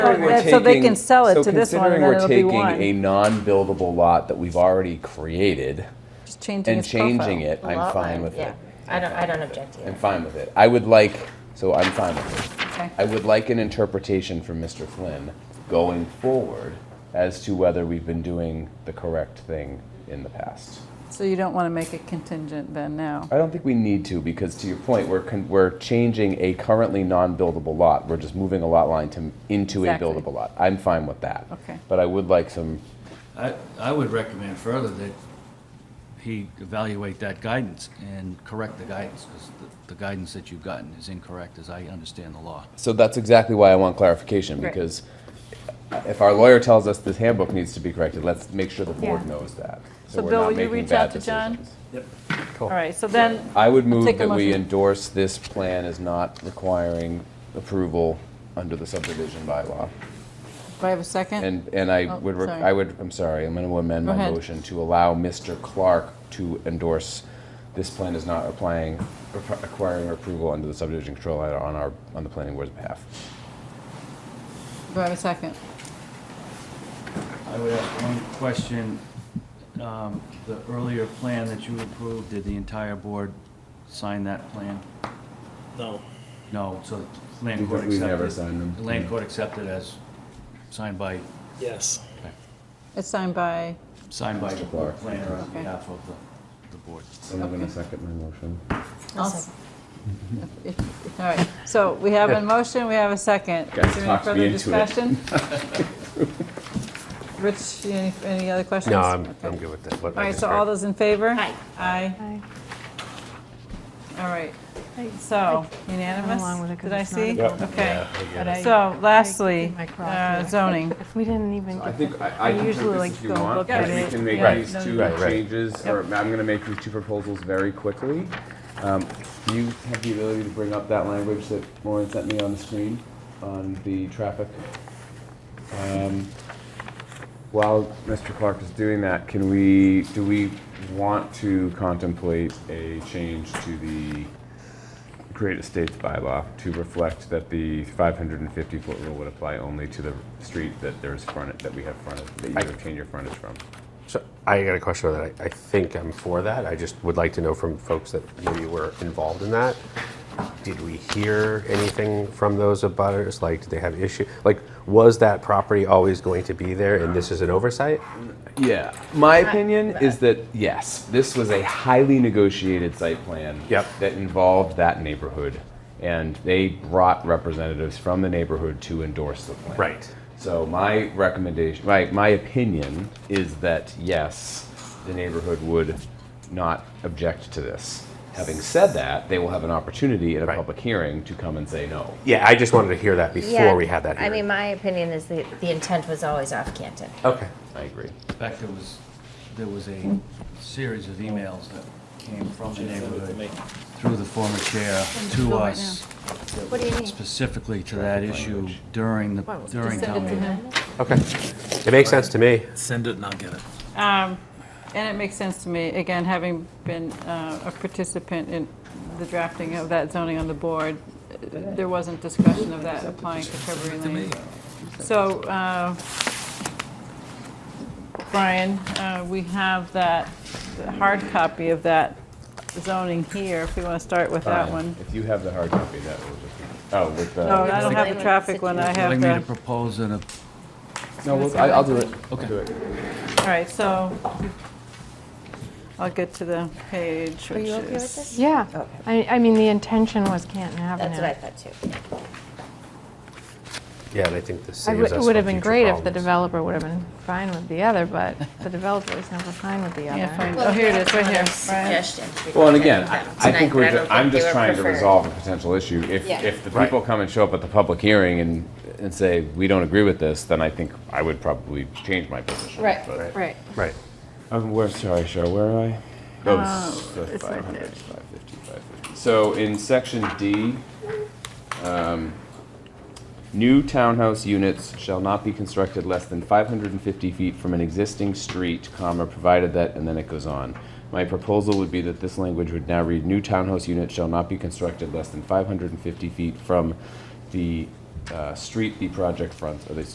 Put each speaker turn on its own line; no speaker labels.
considering we're
that- so they
taking-
can sell it
so
to this one, and
considering
then
we're
it'll be
taking
one.
a non-buildable lot that we've already created
Just changing
and
its profile.
changing it,
A
I'm
lot
fine
line,
with
yeah.
it.
I don't, I don't object to
I'm
that.
fine with it. I would like, so I'm fine with it.
Okay.
I would like an interpretation from Mr. Flynn going forward as to whether we've been doing the correct thing in the past.
So you don't want to make it contingent then now?
I don't think we need to because to your point, we're, con- we're changing a currently non-buildable lot. We're just moving a lot line to, into
Exactly.
a buildable lot. I'm fine with that.
Okay.
But I would like some,
I, I would recommend further that he evaluate that guidance and correct the guidance, because the guidance that you've gotten is incorrect, as I understand the law.
so that's exactly why I want clarification
Right.
because if our lawyer tells us this handbook needs to be corrected, let's make sure the board
Yeah.
knows that.
So
we're
Bill,
not
will you
making
reach out
bad
to John?
decisions.
All right, so then,
I would move
take a
that we
motion.
endorse this plan as not requiring approval under the subdivision bylaw.
do I have a second?
And, and I
Oh,
would, rec-
sorry.
I would, I'm sorry, I'm going to amend
Go
my
ahead.
motion to allow Mr. Clark to endorse this plan as not applying, requiring approval under the subdivision control law on our, on the planning board's behalf.
Do I have a second?
I would ask one question. Um, The earlier plan that you approved, did the entire board sign that plan?
No.
No, so the land court accepted.
We've never signed them.
The land court accepted as signed by,
Yes.
It's signed by,
signed by the
Mr. Clark.
planner on
Okay.
behalf of the, the board.
So I'm going to second my motion.
I'll
I'll s-
second.
if- if- all right, so we have a motion, we have a second.
Guys,
Is there any
talked me
further
into it.
discussion? Rich, any, any other questions?
No, I'm,
Okay.
I'm good with that. what
All
I
right,
just
so all
heard.
those in favor?
Aye.
Aye,
Aye.
all right,
I-
so unanimous?
along with it 'cause
Did I
it's not
see?
a vote.
Okay.
Yeah, I get
But
it.
I-
So lastly,
I did my
uh,
cross.
zoning.
If we didn't even.
I
get
think
the-
I, I can take
usually
this
like
if you
don't
want,
look
at
because we
it.
can make
Right.
these
No,
two
Right, right.
changes, or I'm gonna make these two proposals very quickly. Um, do you have the ability to bring up that language that Maureen sent me on the screen on the traffic? Um, While Mr. Clark is doing that, can we, do we want to contemplate a change to the Create Estates bylaw to reflect that the 550-foot rule would apply only to the street that there's frontage, that we have frontage, that you obtain your frontage from.
So I got a question on that. I, I think I'm for that. I just would like to know from folks that maybe were involved in that. Did we hear anything from those abutters? Like, did they have issue? Like, was that property always going to be there and this is an oversight?
Yeah, my opinion is that, yes, this was a highly negotiated site plan.
Yep.
That involved that neighborhood, and they brought representatives from the neighborhood to endorse the plan.
Right.
So my recommendation, my, my opinion is that, yes, the neighborhood would not object to this. Having said that, they will have an opportunity at a
Right.
public hearing to come and say no.
Yeah, I just wanted to hear that
Yeah,
before we had that
I mean,
hearing.
my opinion is that the intent was always off Canton.
Okay.
I agree.
In fact, there was, there was a series of emails that came from the neighborhood through the former chair to
Bill right
us,
What do you mean?
specifically to that issue during the, during
Just send
town
it to
meeting.
him.
Okay. It makes sense to me.
Send it and I'll get it.
Um, And it makes sense to me, again, having been uh, a participant in the drafting of that zoning on the board, uh, there wasn't discussion of that applying to Shrubbery Lane. So, uh, Brian, uh, we have that, the hard copy of that zoning here, if we want to start with that
Fine.
one.
If you have the hard copy, that will just be, oh, with the.
No, I don't have the traffic one, I
Like
have
me to
the,
propose an a
No, we'll- I- I'll do it.
Okay.
I'll do it.
all right, so I'll get to the page,
Are
which
you okay
is.
with this?
Yeah,
Okay.
I, I mean, the intention was Canton Avenue.
That's what I thought too.
Yeah, and I think this
I
saves us
would- It would
from
have been
future
great if the
problems.
developer would have been fine with the other, but the developer was never fine with the other.
Yeah, fine. Oh, here it is, right here. Brian.
Well, and again, I I think we're, ju- I'm just trying to resolve a potential issue. If,
Yeah.
if the
Right.
people come and show up at the public hearing and, and say, we don't agree with this, then I think I would probably change my position.
Right.
but-
Right.
Right.
Um, where, sorry, Cheryl, where am I? Oh, this is the
Uh, it's right
500,
there.
550, 550. So in section D, um, new townhouse units shall not be constructed less than 550 feet from an existing street, comma, provided that, and then it goes on. My proposal would be that this language would now read, new townhouse units shall not be constructed less than 550 feet from the uh, street the project front, or the